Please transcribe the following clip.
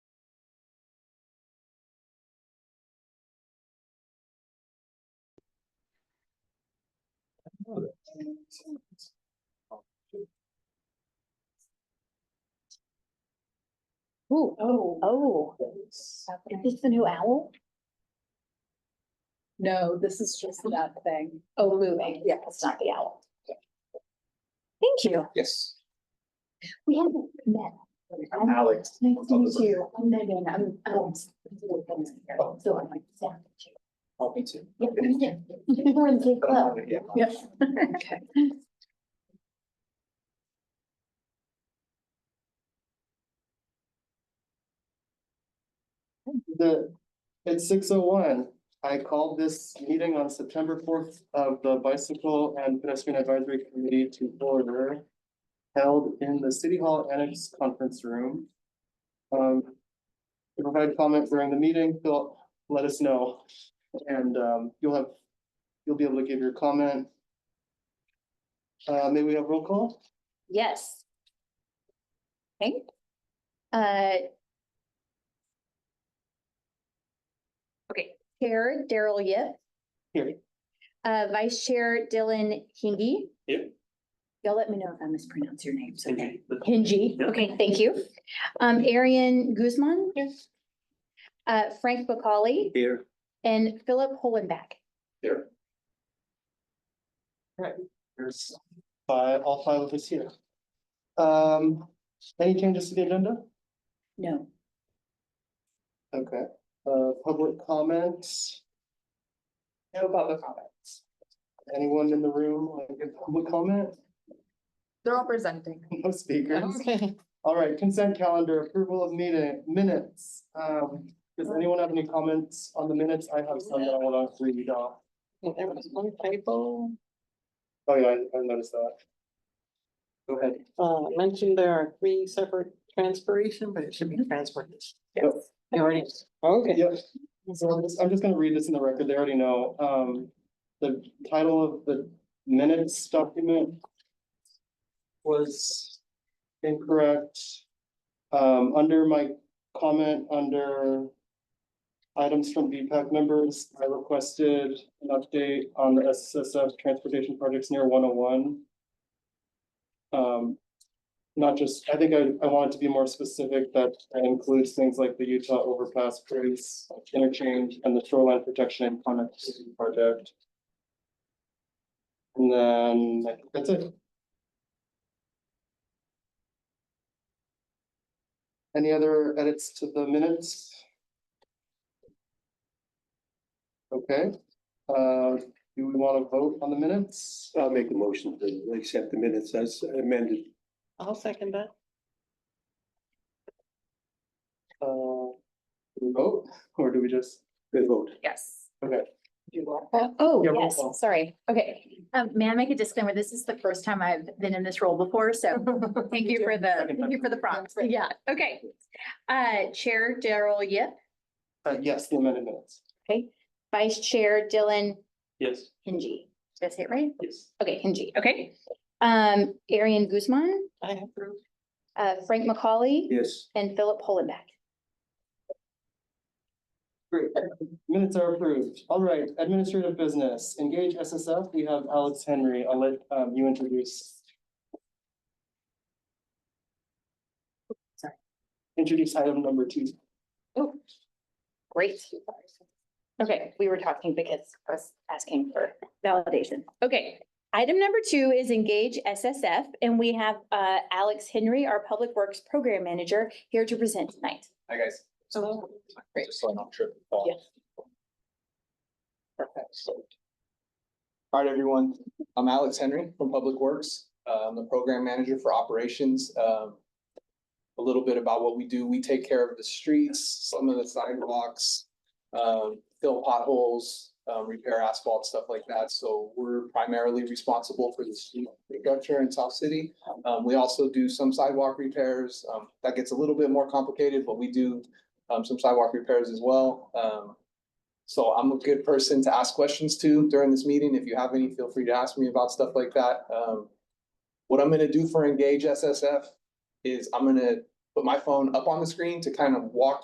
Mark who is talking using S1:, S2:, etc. S1: Ooh,
S2: Oh,
S1: oh, is this the new owl?
S2: no, this is just that thing. Oh, moving.
S1: Yeah, it's not the owl. Thank you.
S3: Yes.
S1: We haven't met.
S3: I'm Alex.
S1: Nice to meet you. I'm Megan. I'm, um. So I'm like, yeah.
S3: Oh, me too.
S1: Yeah, we did. We're in the same club.
S3: Yeah.
S2: Yep. Okay.
S4: The, at six oh one, I called this meeting on September fourth of the Bicycle and Pedestrian Advisory Committee to order. Held in the City Hall Annex Conference Room. Um, to provide comment during the meeting, Phil, let us know. And, um, you'll have, you'll be able to give your comment. Uh, may we have roll call?
S1: Yes. Okay. Uh. Okay, Chair Daryl Yip.
S4: Here.
S1: Uh, Vice Chair Dylan Hingy.
S4: Here.
S1: Y'all let me know if I mispronounce your names, okay?
S4: Thank
S1: Hingy,
S4: Yeah.
S1: okay, thank you. Um, Arian Guzman. Yes. Uh, Frank McCauley
S3: Here.
S1: and Philip Holenback.
S3: Here.
S4: Here's Five, all five of us here. Um, any changes to the agenda?
S1: No.
S4: Okay, uh, public comments?
S2: No public comments.
S4: Anyone in the room want to give public comment?
S2: They're all presenting.
S4: No speakers. All right, consent calendar approval of meeting minutes. Um, does anyone have any comments on the minutes? I have some that I want to read off.
S5: There was one typo,
S4: Oh, yeah, I I noticed that. Go ahead.
S5: uh, mentioned there are three separate transpiration, but it should be transportation.
S4: Yes.
S5: I already, okay.
S4: Yep, so I'm just, I'm just gonna read this in the record, they already know, um, the title of the minutes document. Was incorrect, um, under my comment, under. Items from VPAC members, I requested an update on the SSF transportation projects near one oh one. Um, not just, I think I, I want it to be more specific that that includes things like the Utah Overpass Bridge interchange and the shoreline protection and connectivity project. And then, I think that's it. Any other edits to the minutes? Okay, uh, do we want to vote on the minutes?
S6: I'll make a motion to accept the minutes as amended.
S5: I'll second that.
S4: Uh, do we vote, or do we just?
S6: Good vote.
S2: Yes.
S4: Okay.
S5: You want
S1: Uh, Oh,
S4: Yeah, roll
S1: yes,
S4: call.
S1: sorry. Okay. Um, may I make a disclaimer? This is the first time I've been in this role before, so
S5: that?
S1: thank you for the,
S4: Second
S1: thank you for the
S5: time.
S1: prompts. Yeah, okay. Uh, Chair Daryl Yip,
S4: Uh, yes, the amended minutes.
S1: okay. Vice Chair Dylan
S4: Yes.
S1: Hingy. Did I say it right?
S4: Yes.
S1: Okay, Hingy, okay. Um, Arian Guzman,
S5: I approve.
S1: uh, Frank McCauley
S6: Yes,
S1: and Philip Holenback.
S4: Great. Minutes are approved. All right, administrative business, engage SSF. We have Alex Henry. I'll let um you introduce.
S1: Sorry.
S4: Introduce item number two.
S1: Great. Okay, we were talking because I was asking for validation. Okay, item number two is engage SSF, and we have uh Alex Henry, our Public Works Program Manager, here to present tonight.
S3: Hi, guys.
S5: Hello.
S3: Just so I'm not tripping. Paul.
S5: Yeah.
S3: Perfect. So- All right, everyone. I'm Alex Henry from Public Works. Uh, I'm the program manager for operations. Um, A little bit about what we do. We take care of the streets, some of the sidewalks, um, fill potholes, um, repair asphalt, stuff like that. So we're primarily responsible for the street infrastructure in South City. Um, we also do some sidewalk repairs. Um, that gets a little bit more complicated, but we do um, some sidewalk repairs as well. Um, so I'm a good person to ask questions to during this meeting. If you have any, feel free to ask me about stuff like that. Um, what I'm gonna do for Engage SSF is I'm gonna put my phone up on the screen to kind of walk